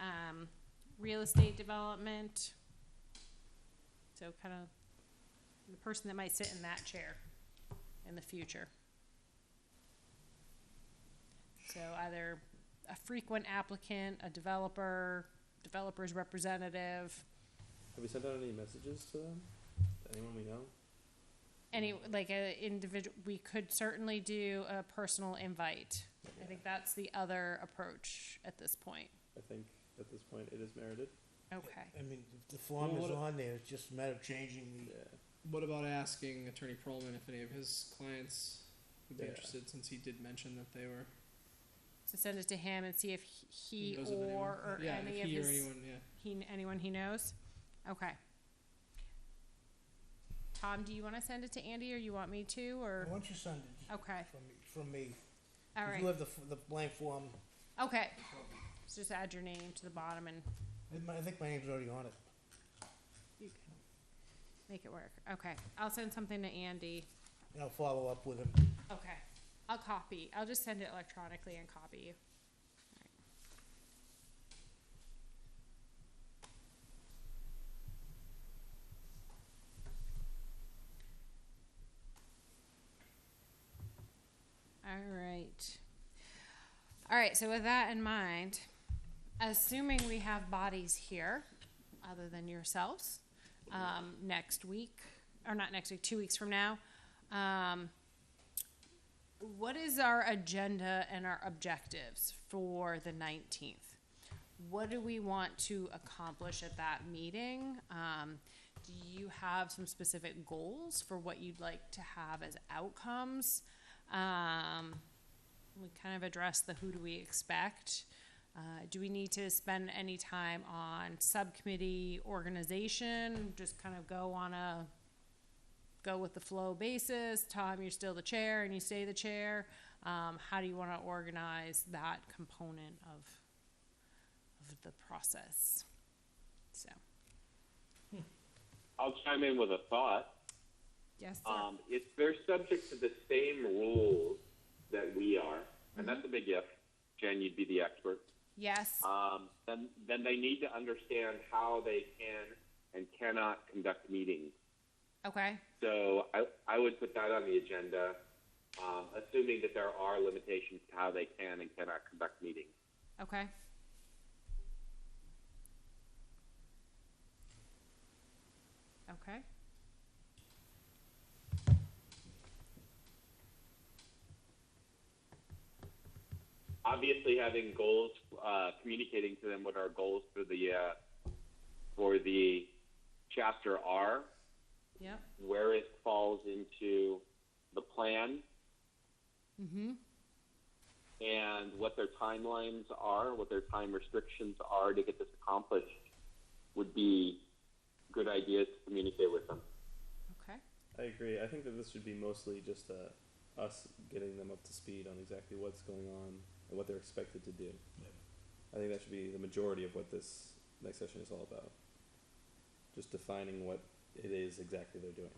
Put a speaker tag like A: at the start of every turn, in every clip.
A: um, real estate development. So kind of the person that might sit in that chair in the future. So either a frequent applicant, a developer, developer's representative,
B: Have we sent out any messages to them? Anyone we know?
A: any, like a individual, we could certainly do a personal invite. I think that's the other approach at this point.
B: I think at this point it is merited.
A: Okay.
C: I mean, if the form
D: Well,
C: is
D: what-
C: on there, it's just a matter of changing
B: Yeah.
C: the,
D: What about asking Attorney Perlman if any of his clients would be
B: Yeah.
D: interested, since he did mention that they were
A: So send it to him and see if he
D: knows of anyone?
A: or, or
D: yeah,
A: any
D: if
A: of
D: he
A: his
D: or anyone, yeah.
A: he anyone he knows. Okay. Tom, do you want to send it to Andy, or you want me to, or
C: once you send it
A: okay,
C: from, from me,
A: all
C: if
A: right,
C: you have the, f- the blank form,
A: okay. So Just add your name to the bottom and
C: I mi- I think my name's already on it.
A: you can make it work. Okay, I'll send something to Andy.
C: And I'll follow up with him.
A: Okay, I'll copy. I'll just send it electronically and copy you. All right. All right, so with that in mind, assuming we have bodies here, other than yourselves, um, next week, or not next week, two weeks from now, um, what is our agenda and our objectives for the 19th? What do we want to accomplish at that meeting? Um, do you have some specific goals for what you'd like to have as outcomes? Um, we kind of addressed the who do we expect. Uh, do we need to spend any time on subcommittee organization? Just kind of go on a go with the flow basis. Tom, you're still the chair and you stay the chair. Um, how do you want to organize that component of of the process? So
E: I'll chime in with a thought.
A: yes, sir.
E: Um, it's they're subject to the same rules that we are, and that's a big if. Jen, you'd be the expert.
A: yes,
E: Um, then, then they need to understand how they can and cannot conduct meetings.
A: okay,
E: So I, I would put that on the agenda, um, assuming that there are limitations to how they can and cannot conduct meetings.
A: okay. Okay.
E: obviously having goals, uh, communicating to them what our goals for the uh, for the chapter are,
A: Yep.
E: where it falls into the plan,
A: Mm-hmm.
E: and what their timelines are, what their time restrictions are to get this accomplished, would be good ideas to communicate with them.
A: Okay.
B: I agree. I think that this should be mostly just uh, us getting them up to speed on exactly what's going on and what they're expected to do. I think that should be the majority of what this next session is all about. Just defining what it is exactly they're doing.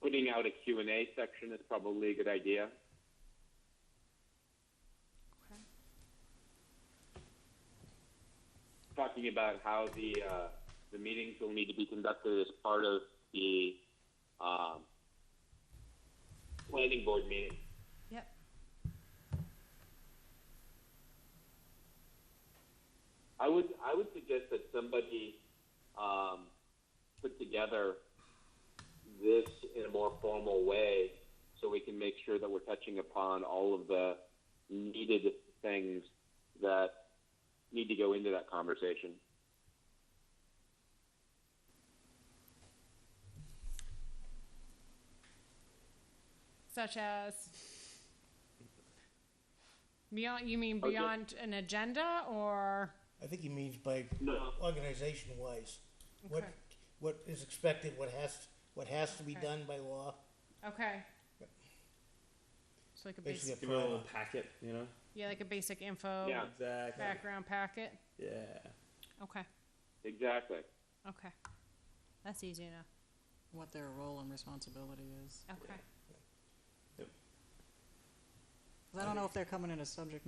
E: Putting out a Q&A section is probably a good idea.
A: Okay.
E: talking about how the uh, the meetings will need to be conducted as part of the um, planning board meeting.
A: Yep.
E: I would I would suggest that somebody um, put together this in a more formal way, so we can make sure that we're touching upon all of the needed things that need to go into that conversation.
A: Such as beyond. You mean
E: Okay.
A: beyond an agenda or?
C: I think he means by
E: No.
C: organization wise. What,
A: Okay.
C: what is expected, what has, what has to be
A: Okay.
C: done by law,
A: Okay. It's like a
C: basically a
A: basic,
B: Give them a
C: primer.
B: little packet, you know?
A: yeah, like a basic info
E: Yeah.
B: Exactly.
A: background packet.
B: Yeah.
A: Okay,
E: Exactly.
A: okay, that's easy enough.
F: what their role and responsibility is.
A: Okay.
F: 'Cause I don't know if they're coming in as subject